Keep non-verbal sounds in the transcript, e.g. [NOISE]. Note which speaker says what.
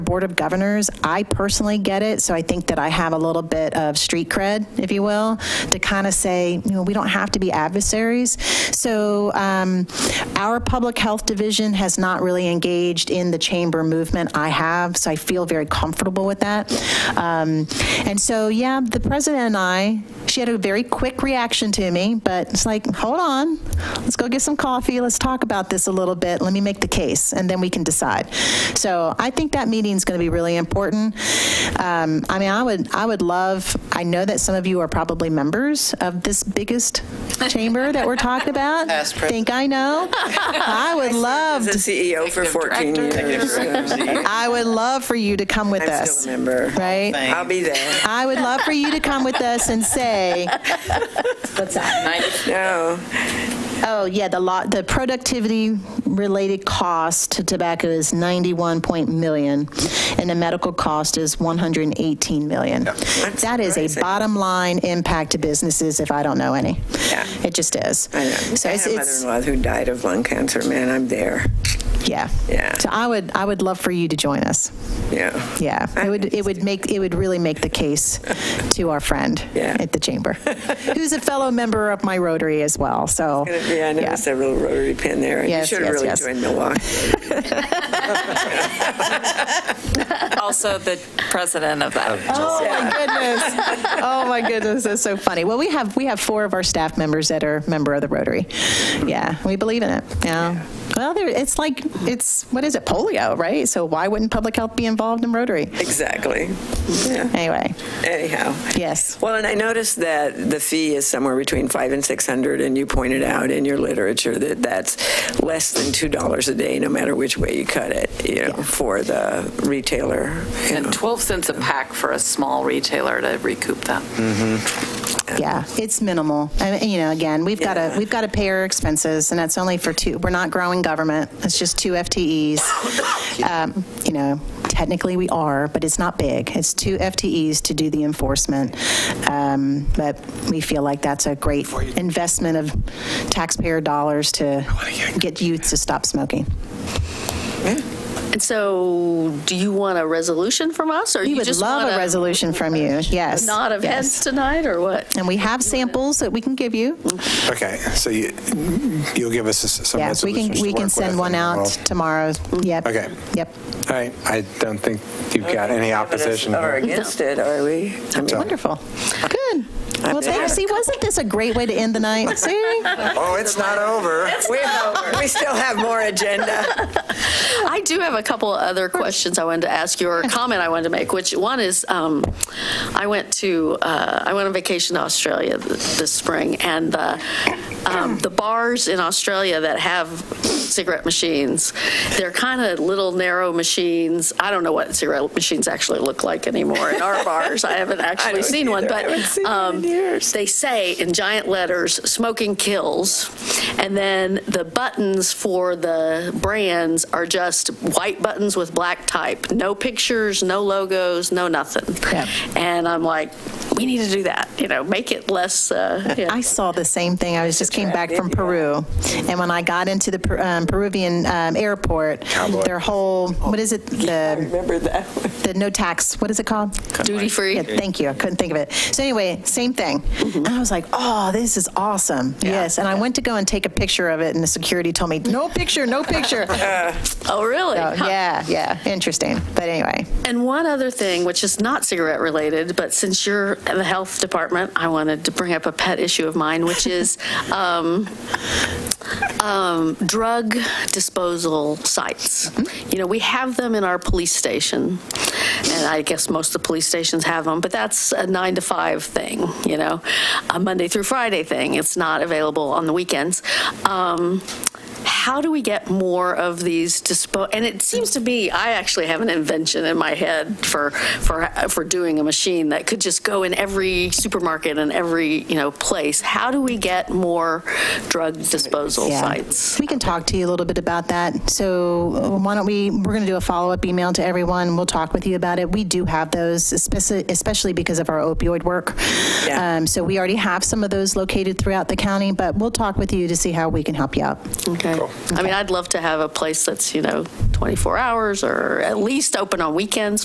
Speaker 1: Board of Governors. I personally get it, so I think that I have a little bit of street cred, if you will, to kind of say, you know, we don't have to be adversaries. So um, our Public Health Division has not really engaged in the chamber movement. I have, so I feel very comfortable with that. Um, And so, yeah, the president and I, she had a very quick reaction to me, but it's like, hold on, let's go get some coffee, let's talk about this a little bit, let me make the case, and then we can decide. So I think that meeting's going to be really important. Um, I mean, I would, I would love, I know that some of you are probably members of this biggest chamber that we're talking about.
Speaker 2: Past president.
Speaker 1: Think I know? I would love,
Speaker 2: As
Speaker 1: to-
Speaker 2: a CEO for 14 years.
Speaker 1: I would love for you to come with
Speaker 2: I'm
Speaker 1: us,
Speaker 2: still a member.
Speaker 1: right?
Speaker 2: I'll be there.
Speaker 1: I would love for you to come with us and say,
Speaker 2: No,
Speaker 1: oh, yeah, the lot, the productivity-related cost to tobacco is 91 point million, and the medical cost is 118 million. That is a
Speaker 2: surprising.
Speaker 1: bottom-line impact to businesses if I don't know any.
Speaker 2: Yeah.
Speaker 1: It just is.
Speaker 2: I know.
Speaker 1: So
Speaker 2: I
Speaker 1: it's,
Speaker 2: had a
Speaker 1: it's,
Speaker 2: mother-in-law who died of lung cancer, man, I'm there.
Speaker 1: yeah.
Speaker 2: Yeah.
Speaker 1: So I would, I would love for you to join us.
Speaker 2: Yeah.
Speaker 1: Yeah. It would, it would make, it would really make the case to our friend
Speaker 2: Yeah.
Speaker 1: at the chamber, who's a fellow member of my Rotary as well, so.
Speaker 2: Yeah, I noticed that little rotary pin there. You
Speaker 1: Yes,
Speaker 2: should have
Speaker 1: yes, yes.
Speaker 2: really joined Milwaukee.
Speaker 3: also the president of that.
Speaker 1: Oh my goodness! Oh my goodness! That's so funny. Well, we have we have four of our staff members that are member of the Rotary. Yeah, we believe in it. Yeah. Well, there, it's like it's what is it? Polio, right? So why wouldn't public health be involved in Rotary?
Speaker 2: Exactly. Yeah.
Speaker 1: Anyway,
Speaker 2: Anyhow.
Speaker 1: yes.
Speaker 2: Well, and I noticed that the fee is somewhere between five and 600, and you pointed out in your literature that that's less than $2 a day, no matter which way you cut it, you know, for the retailer. you know.
Speaker 3: And 12 cents a pack for a small retailer to recoup that.
Speaker 1: Yeah, it's minimal. I mean, you know, again, we've got
Speaker 2: Yeah.
Speaker 1: to we've got to pay our expenses, and that's only for two. We're not growing government. It's just two FTEs. Um, you know, technically we are, but it's not big. It's two FTEs to do the enforcement. Um, but we feel like that's a great investment of taxpayer dollars to get youth to stop smoking.
Speaker 4: And so, do you want a resolution from us, or
Speaker 1: We
Speaker 4: you
Speaker 1: would
Speaker 4: just
Speaker 1: love
Speaker 4: want
Speaker 1: a resolution from you.
Speaker 4: [LAUGHS]
Speaker 1: Yes.
Speaker 4: Nod of
Speaker 1: yes.
Speaker 4: heads tonight, or what?
Speaker 1: And we have samples that we can give you.
Speaker 5: Okay, so you, you'll give us s- some
Speaker 1: Yeah, we
Speaker 5: resolutions
Speaker 1: can,
Speaker 5: to
Speaker 1: we
Speaker 5: work
Speaker 1: can
Speaker 5: with
Speaker 1: send one
Speaker 5: and
Speaker 1: out
Speaker 5: we'll-
Speaker 1: tomorrow. Yep.
Speaker 5: Okay.
Speaker 1: Yep.
Speaker 5: All right, I don't think you've got any opposition
Speaker 2: Or
Speaker 5: here.
Speaker 2: against it, are we? I mean,
Speaker 1: Wonderful. Good. Well,
Speaker 2: there.
Speaker 1: thanks. See, wasn't this a great way to end the night? [LAUGHS] See?
Speaker 5: Oh, it's not over.
Speaker 2: We have- we still have more agenda.
Speaker 4: [LAUGHS] I do have a couple other questions I wanted to ask you, or a comment I wanted to make. Which one is, um, I went to, uh, I went on vacation to Australia th- this spring, and the um, the bars in Australia that have cigarette machines, they're kind of little narrow machines. I don't know what cigarette machines actually look like anymore in [LAUGHS] our bars. I haven't actually
Speaker 2: don't
Speaker 4: seen one,
Speaker 2: either. I
Speaker 4: but
Speaker 2: haven't seen one in
Speaker 4: um,
Speaker 2: years.
Speaker 4: they say in giant letters, smoking kills. And then the buttons for the brands are just white buttons with black type. No pictures, no logos, no nothing.
Speaker 1: Yeah.
Speaker 4: And I'm like, we need to do that, you know, make it
Speaker 1: [LAUGHS]
Speaker 4: less, uh, yeah.
Speaker 1: I saw the same thing. I was just came back from Peru. And when I got into the Per- um, Peruvian um, airport, their whole, what is it? The,
Speaker 2: Remember that?
Speaker 1: the no tax, what is it called?
Speaker 4: duty free.
Speaker 1: Yeah, thank you. I couldn't think of it. So anyway, same thing. And I was like, oh, this is awesome. Yes. And I went to go and take a picture of it and the security told me, no picture, no picture.
Speaker 4: Oh, really?
Speaker 1: So,
Speaker 4: Huh.
Speaker 1: yeah, yeah, interesting. But anyway,
Speaker 4: And one other thing, which is not cigarette related, but since you're in the health department, I wanted to bring up a pet issue of mine, which is [LAUGHS] um, um, drug disposal sites. You know, we have them in our police station, and I guess most of the police stations have them, but that's a nine to five thing, you know, a Monday through Friday thing. It's not available on the weekends. Um, how do we get more of these dispo? And it seems to me I actually have an invention in my head for for for doing a machine that could just go in every supermarket and every you know place. How do we get more drug disposal
Speaker 1: Yeah.
Speaker 4: sites?
Speaker 1: We can talk to you a little bit about that. So uh, why don't we, we're going to do a follow-up email to everyone. We'll talk with you about it. We do have those, especially, especially because of our opioid work.
Speaker 2: Yeah.
Speaker 1: Um, So we already have some of those located throughout the county, but we'll talk with you to see how we can help you out.
Speaker 4: Okay. I mean, I'd love to have a place that's, you know, 24 hours or at least open on weekends